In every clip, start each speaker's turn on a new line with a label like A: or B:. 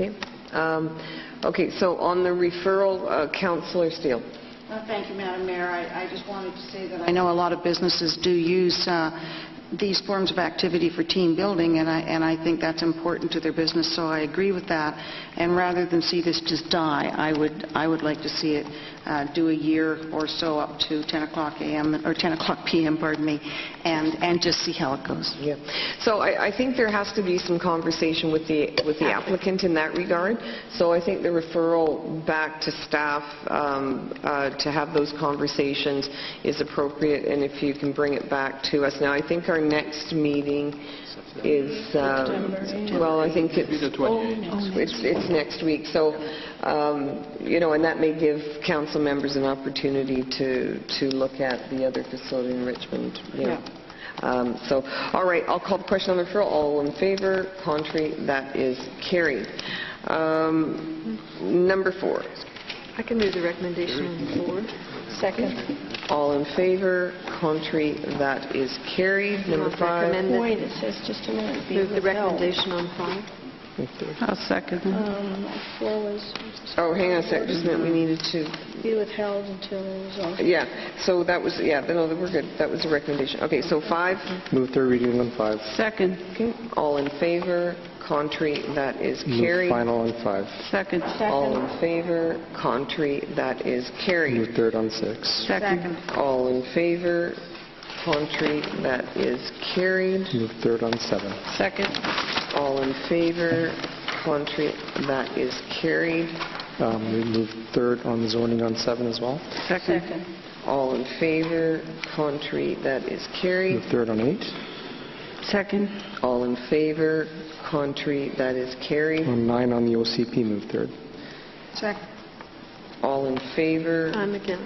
A: Okay, Um, okay, so on the referral, uh, Counselor Steele.
B: Uh, Thank you, Madam Mayor. I I just wanted to say that I know a lot of businesses do use uh, these forms of activity for team building, and I and I think that's important to their business, so I agree with that. And rather than see this just die, I would I would like to see it uh, do a year or so up to 10 o'clock a.m., or 10 o'clock p.m., pardon me, and and just see how it goes.
A: Yeah. So I, I think there has to be some conversation with the, with the applicant in that regard. So I think the referral back to staff um, uh, to have those conversations is appropriate, and if you can bring it back to us. Now, I think our next meeting is, uh, well, I think it's...
C: the 28th.
A: It's, it's next week, so, um, you know, and that may give council members an opportunity to, to look at the other facility in Richmond, you know. Um, So, all right, I'll call the question on the referral, all in favor, contrary, that is carried. Um, Number four,
D: I can move the recommendation on the floor. Second.
A: all in favor, contrary, that is carried. Number five,
D: Recommend that-
E: Wait, it says just a minute. be
D: move the
E: withheld.
D: recommendation on five.
B: I'll second
E: Um, Four was
A: oh, hang on a sec, just a minute, we needed to
E: be withheld until it was all...
A: Yeah, so that was, yeah, no, we're good, that was the recommendation. Okay, so five,
F: Move third reading on five.
B: Second,
A: okay, all in favor, contrary, that is
F: Move
A: carried.
F: final on five.
B: second,
A: All in favor, contrary, that is
F: Move
A: carried.
F: third on six.
B: second.
A: All in favor, contrary, that is carried.
F: Move third on seven.
B: Second.
A: All in favor, contrary, that is carried.
F: Um, We move third on zoning on seven as well.
B: Second.
A: All in favor, contrary, that is
F: Move
A: carried.
F: third on eight.
B: Second.
A: All in favor, contrary, that is carried.
F: On nine on the OCP, move third.
B: Second.
A: All in favor?
D: I'm against,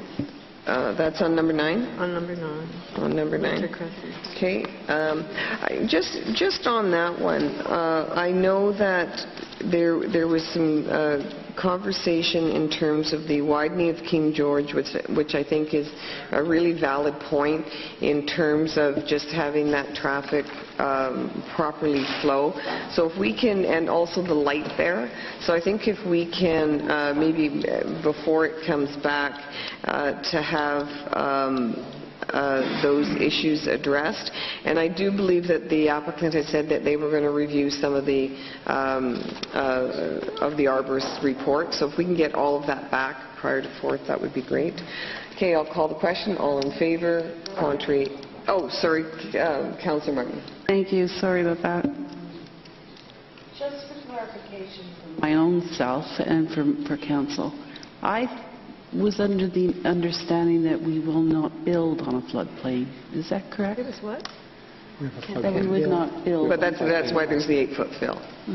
A: Uh, That's on number nine?
D: on number nine.
A: On number
D: Mr.
A: nine.
D: Cresses.
A: Okay. um, I- Just, just on that one, uh, I know that there, there was some uh, conversation in terms of the widening of King George, which, which I think is a really valid point in terms of just having that traffic um, properly flow. So if we can, and also the light there, so I think if we can, uh, maybe uh, before it comes back, uh, to have um, uh, those issues addressed. And I do believe that the applicant had said that they were going to review some of the, um, uh, of the arborist's report. So if we can get all of that back prior to 4th, that would be great. Okay, I'll call the question. All in favor? Contrary? Oh, sorry, uh, Councillor Martin.
B: Thank you, sorry about that.
G: Just for clarification from
B: My own self and for, for council, I was under the understanding that we will not build on a floodplain. Is that correct?
D: It was what?
B: That we would not build.
A: But that's, that's why there's the eight-foot fill.
F: We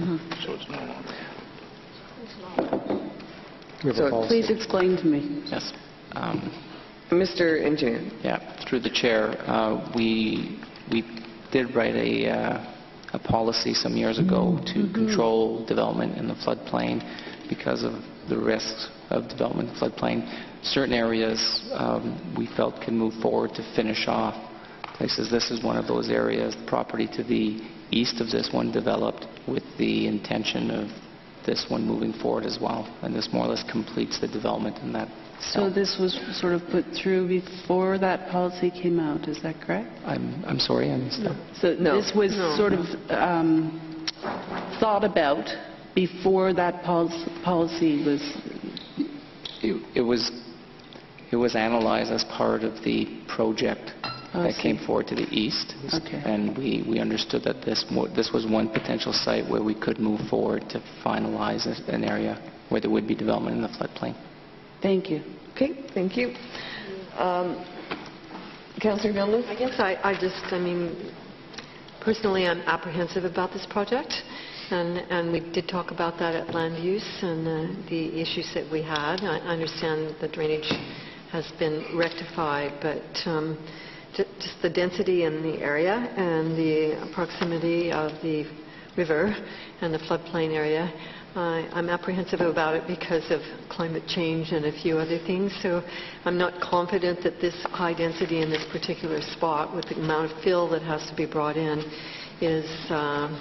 F: have
A: So
F: a policy.
B: Please explain to me.
H: Yes. Um,
A: Mr. Engineer.
H: Yeah, through the chair, uh, we we did write a uh, a policy some years ago to control development in the floodplain because of the risks of development in the floodplain. Certain areas um, we felt can move forward to finish off places. This is one of those areas, The property to the east of this one developed with the intention of this one moving forward as well, and this more or less completes the development in that.
B: Oh.
I: So this was sort of put through before that policy came out, is that correct?
H: I'm I'm sorry, I missed that.
I: So
A: No.
I: this was sort of um, thought about before that pol- policy was,
H: It it was, it was analyzed as part of the project
I: Oh, I
H: that came forward to the east.
I: Okay.
H: And we, we understood that this, mo- this was one potential site where we could move forward to finalize a- an area where there would be development in the floodplain.
I: thank you.
A: Okay, thank you. Um, Councillor Villalobos?
D: I guess I, I just, I mean, personally, I'm apprehensive about this project, and, and we did talk about that at land use and uh, the issues that we had. I understand the drainage has been rectified, but um, ju- just the density in the area and the proximity of the river and the floodplain area, I- I'm apprehensive about it because of climate change and a few other things, so I'm not confident that this high density in this particular spot with the amount of fill that has to be brought in is um,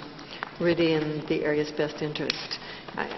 D: really in the area's best interest. I-